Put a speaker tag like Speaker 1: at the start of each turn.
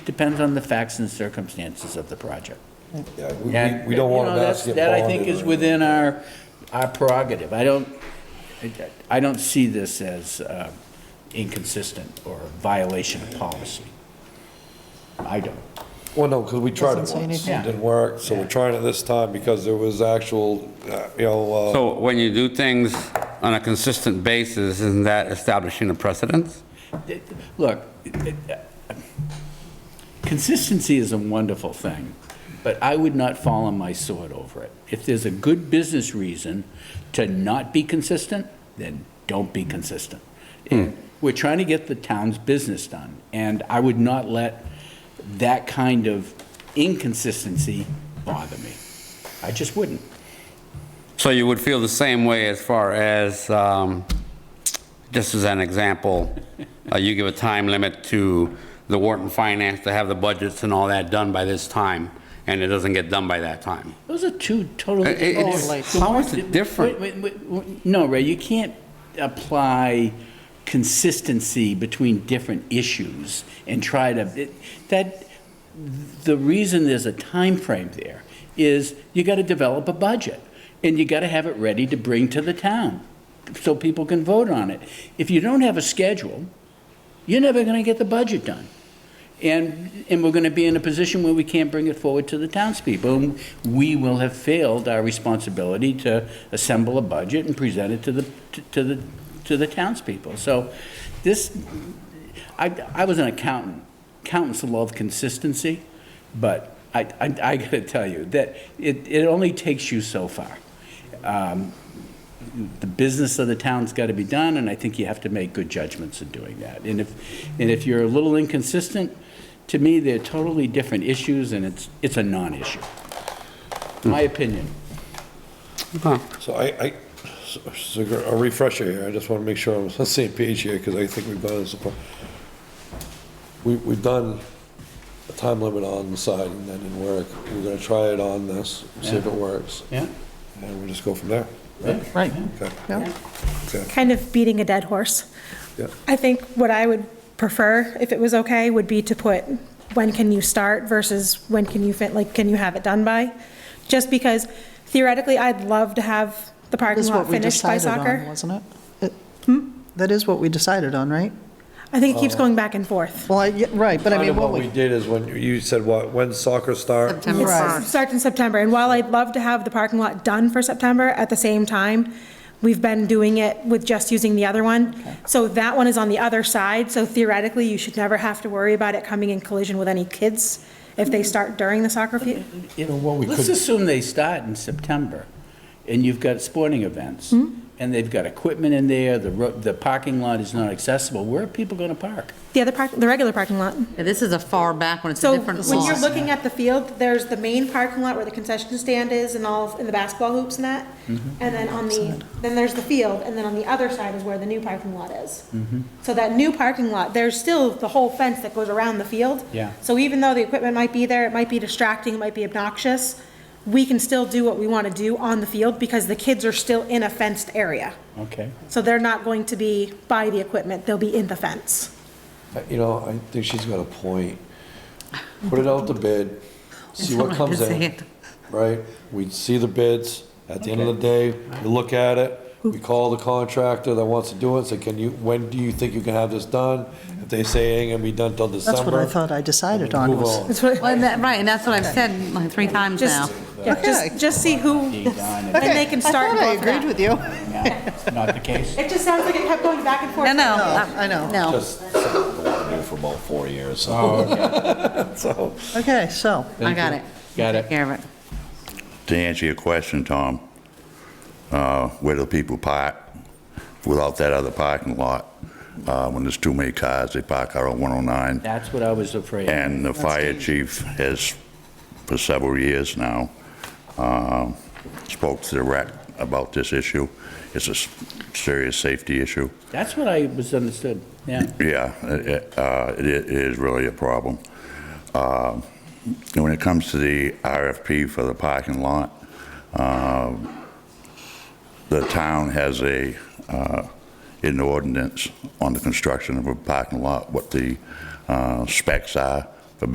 Speaker 1: Depends on the facts and circumstances of the project.
Speaker 2: Yeah, we-
Speaker 1: That-
Speaker 2: we, we don't want
Speaker 1: you
Speaker 2: to
Speaker 1: know, that's-
Speaker 2: ask get
Speaker 1: That
Speaker 2: bonded.
Speaker 1: I think is
Speaker 2: or-
Speaker 1: within our, our prerogative. I don't, I- I don't see this as uh, inconsistent or a violation of policy. I don't.
Speaker 2: Well, no, because we tried it
Speaker 3: Doesn't
Speaker 2: once,
Speaker 3: say
Speaker 2: it
Speaker 3: anything.
Speaker 2: didn't work, so we're trying it this time because there was actual, uh, you know, uh,
Speaker 4: So when you do things on a consistent basis, isn't that establishing a precedence?
Speaker 1: Look, it- it- consistency is a wonderful thing, but I would not fall on my sword over it. If there's a good business reason to not be consistent, then don't be consistent. We're trying to get the town's business done, and I would not let that kind of inconsistency bother me. I just wouldn't.
Speaker 4: So you would feel the same way as far as, um, just as an example, uh, you give a time limit to the Wharton Finance to have the budgets and all that done by this time, and it doesn't get done by that time.
Speaker 1: Those are two totally.
Speaker 4: It- it's-
Speaker 1: Totally.
Speaker 4: how is it different?
Speaker 1: Wait, wait, wait, wait, No, Ray, you can't apply consistency between different issues and try to, it- that, the reason there's a time frame there is you got to develop a budget, and you got to have it ready to bring to the town, so people can vote on it. If you don't have a schedule, you're never going to get the budget done. And, and we're going to be in a position where we can't bring it forward to the townspeople. and We will have failed our responsibility to assemble a budget and present it to the, to the, to the townspeople. So this, I, I was an accountant. Accountants love consistency, but I, I, I got to tell you that it, it only takes you so far the business of the town's got to be done, and I think you have to make good judgments in doing that. And if, and if you're a little inconsistent, to me, they're totally different issues, and it's, it's a non-issue. My opinion.
Speaker 2: so I, I, so- so a refresher here, I just want to make sure I'm on the same page here because I think we've done this before. We, we've done a time limit on the side and that didn't work. We're going to try it on this, see if it works.
Speaker 1: Yeah?
Speaker 2: And we'll just go from there.
Speaker 3: Right.
Speaker 2: Okay,
Speaker 3: Yeah.
Speaker 2: okay,
Speaker 5: kind of beating a dead horse.
Speaker 2: yeah.
Speaker 5: I think what I would prefer, if it was okay, would be to put, when can you start versus when can you fit, like, can you have it done by? Just because theoretically, I'd love to have the parking
Speaker 3: That's
Speaker 5: lot
Speaker 3: what we
Speaker 5: finished by
Speaker 3: decided on,
Speaker 5: soccer. Hmm?
Speaker 3: wasn't it? It- That is what we decided on, right?
Speaker 5: I think it keeps going back and forth.
Speaker 3: Well, I, yeah, right, but I
Speaker 2: Kind
Speaker 3: mean,
Speaker 2: of
Speaker 3: what
Speaker 2: what we
Speaker 3: we,
Speaker 2: did is when, you said what, when soccer start?
Speaker 6: September
Speaker 3: Right.
Speaker 6: 1st.
Speaker 5: It starts in September, and while I'd love to have the parking lot done for September, at the same time, we've been doing it with just using the other one. So that one is on the other side, so theoretically, you should never have to worry about it coming in collision with any kids if they start during the soccer field.
Speaker 1: You know, what we Let's assume they start in September, and you've got sporting events, and they've got equipment in there, the, ro- the parking lot is not accessible. Where are people going to park?
Speaker 5: The other park, the regular parking lot.
Speaker 6: Yeah, This is a far back one, it's a
Speaker 5: So
Speaker 6: different
Speaker 5: when you're
Speaker 6: law.
Speaker 5: looking at the field, there's the main parking lot where the concession stand is and all, and the basketball hoops and that. And then on the, then there's the field, and then on the other side is where the new parking lot is. So that new parking lot, there's still the whole fence that goes around the field.
Speaker 1: Yeah.
Speaker 5: So even though the equipment might be there, it might be distracting, it might be obnoxious, we can still do what we want to do on the field because the kids are still in a fenced area.
Speaker 1: Okay.
Speaker 5: So they're not going to be by the equipment, they'll be in the fence.
Speaker 2: You know, I think she's got a point. Put it out to bid, see what comes in, right? We see the bids, at the end of the day, we look at it, we call the contractor that wants to do it, say, can you, when do you think you can have this done? If they say it ain't gonna be done till December.
Speaker 3: that's what I thought I decided on
Speaker 2: Move
Speaker 3: was.
Speaker 2: on.
Speaker 5: That's what,
Speaker 6: Well, and that- Right, and that's what I've said like three times now.
Speaker 5: Just, yeah, just, just see who, and they can start.
Speaker 3: I thought I
Speaker 5: both of them.
Speaker 3: agreed with you.
Speaker 1: Now, not the case?
Speaker 5: It just sounds like it kept going back and forth.
Speaker 6: No, no.
Speaker 3: I know.
Speaker 6: No,
Speaker 2: Just,
Speaker 7: for about four years, so.
Speaker 2: so,
Speaker 3: Okay, so,
Speaker 6: I got it.
Speaker 1: Got it.
Speaker 6: Take care of it.
Speaker 7: To answer your question, Tom, uh, where do people park without that other parking lot? Uh, When there's too many cars, they park out on 109.
Speaker 1: That's what I was afraid of.
Speaker 7: And the fire chief has, for several years now, um, spoke to the rec about this issue. It's a s- serious safety issue.
Speaker 1: That's what I was understood, yeah.
Speaker 7: Yeah, it- it uh, it i- it is really a problem. Uh, and When it comes to the RFP for the parking lot, uh, the town has a, uh, in the ordinance on the construction of a parking lot, what the uh, specs are